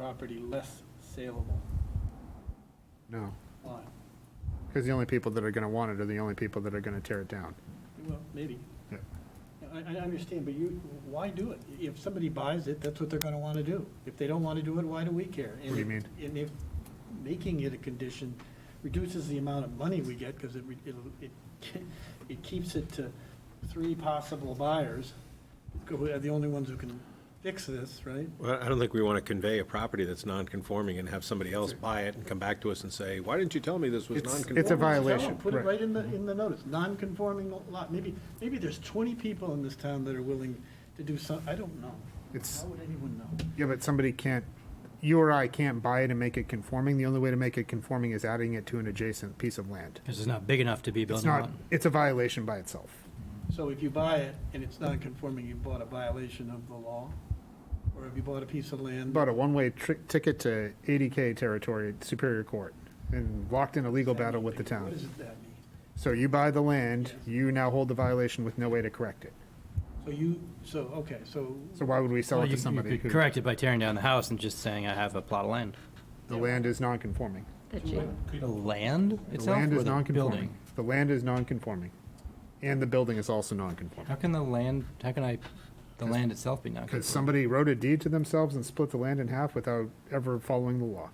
property less saleable No, lot. because the only people that are going to want it are the only people that are going to tear it down. Well, maybe. Yeah. I, I understand, but you, why do it? If somebody buys it, that's what they're gonna wanna do. If they don't wanna do it, why do we care? What do you mean? And if making it a condition reduces the amount of money we get, because it, re- it'll- it, it keeps it to three possible buyers, who are the only ones who can fix this, right? Well, I don't think we want to convey a property that's non-conforming and have somebody else buy it and come back to us and say, why didn't you tell me this was It's- non-conforming? it's a Well, tell 'em, violation, Put it right. right in the, in the notice, non-conforming lot. Maybe, maybe there's twenty people in this town that are willing to do some, I don't know. It's- How would anyone know? Yeah, but somebody can't, you or I can't buy it and make it conforming. The only way to make it conforming is adding it to an adjacent piece of land. Because it's not big enough to be a It's building not, lot. it's a violation by itself. So if you buy it and it's non-conforming, you bought a violation of the law? Or have you bought a piece of land? Bought a one-way tri- ticket to 80K territory, at Superior Court, and locked in a legal battle with the What town. does that mean? So you buy the land, Yes. you now hold the violation with no way to correct it. So you, so, okay, so, So why would we sell Well, it you- to somebody You could who, correct it by tearing down the house and just saying, I have a plot of land. the land is non-conforming? That you, The land The itself land or is the non-conforming. building? The land is non-conforming. And the building is also non-conforming. How can the land, how can I, the land itself be non-conforming? Because somebody wrote a deed to themselves and split the land in half without ever following the law.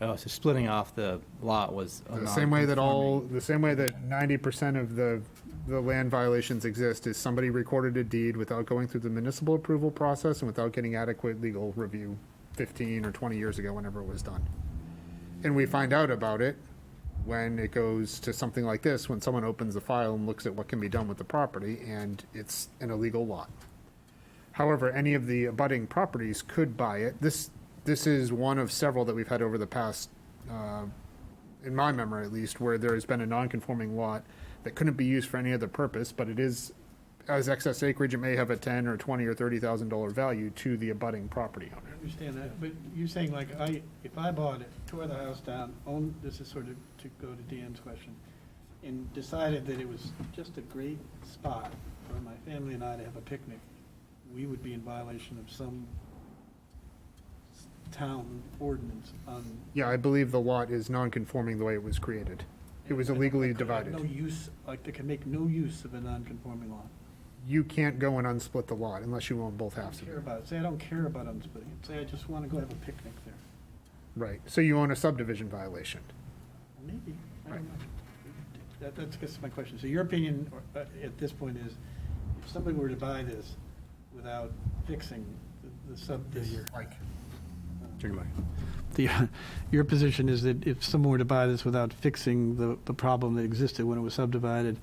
Oh, so splitting off the lot was a The same way that all, non-conforming. the same way that ninety percent of the, the land violations exist is somebody recorded a deed without going through the municipal approval process and without getting adequate legal review fifteen or twenty years ago, whenever it was done. And we find out about it when it goes to something like this, when someone opens the file and looks at what can be done with the property, and it's an illegal lot. However, any of the abutting properties could buy it. This, this is one of several that we've had over the past, uh, in my memory at least, where there has been a non-conforming lot that couldn't be used for any other purpose, but it is, as excess acreage, it may have a ten or twenty or thirty thousand dollar value to the abutting property I owner. understand that, but you're saying like, I, if I bought it, tore the house down, owned, this is sort of to go to Dan's question, and decided that it was just a great spot for my family and I to have a picnic, we would be in violation of some s- town ordinance on Yeah, I believe the lot is non-conforming the way it was created. It was I don't- I illegally could have No divided. use, like, they can make no use of a non-conforming lot. You can't go and unsplit the lot unless you own both I halves don't of care it. about it, say I don't care about unsplitting it, say I just wanna go have a picnic there. Right, so you own a subdivision violation. Maybe, I Right. don't know. That, that's, that's my question. So your opinion or, uh, at this point is, if somebody were to buy this without fixing the- the uh, sub, this. Like, The, your position is that if someone were to buy this without fixing the, the problem that existed when it was subdivided,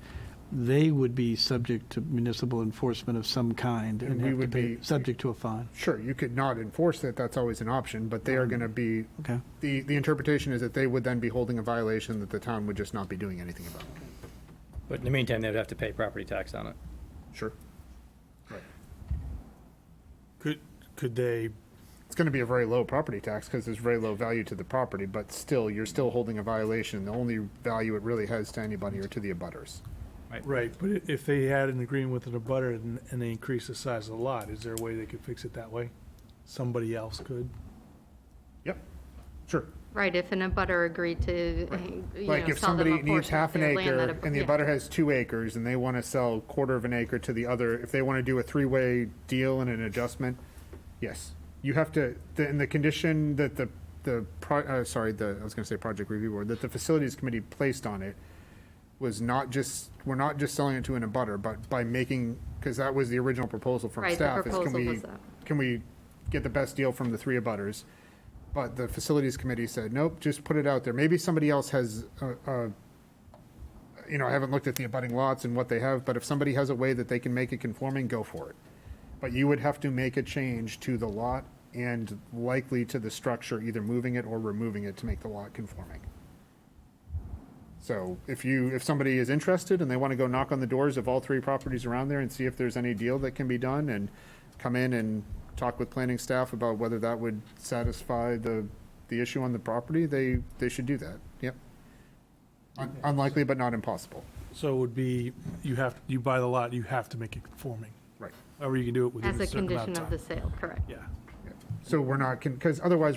they would be subject to municipal enforcement of some kind And and we have to would pay, be- subject to a fine. sure, you could not enforce it, that's always an option, but they are gonna be, Okay. the, the interpretation is that they would then be holding a violation that the town would just not be doing anything about. But in the meantime, they would have to pay property tax on it. Sure. Could, could they, It's gonna be a very low property tax, cause there's very low value to the property, but still, you're still holding a violation. The only value it really has to anybody are to the abutters. right, but i- if they had an agreement with an abutter and, and they increased the size of the lot, is there a way they could fix it that way? Somebody else could? Yep, sure. right, if an abutter agreed to, uh, you Like know, if sell them a somebody needs portion of half an their land acre that ab- and the yeah. abutter has two acres and they want to sell quarter of an acre to the other, if they want to do a three-way deal and an adjustment, yes. You have to, the- and the condition that the, the, pro- uh, sorry, the, I was going to say project review board, that the facilities committee placed on it was not just, we're not just selling it to an abutter, but by making, because that was the original proposal from Right, the staff. is can proposal we- was that. Can we get the best deal from the three abutters? But the facilities committee said, nope, just put it out there. Maybe somebody else has, uh, uh, you know, I haven't looked at the abutting lots and what they have, but if somebody has a way that they can make it conforming, go for it. But you would have to make a change to the lot and likely to the structure, either moving it or removing it to make the lot conforming. So if you, if somebody is interested and they want to go knock on the doors of all three properties around there and see if there's any deal that can be done and come in and talk with planning staff about whether that would satisfy the, the issue on the property, they, they should do that. Yep. Un- Unlikely, but not impossible. So it would be, you have, you buy the lot, you have to make it conforming, Right. or you can do it As within a a certain amount condition of of time. the sale, correct. Yeah. Yep. So we're not, because otherwise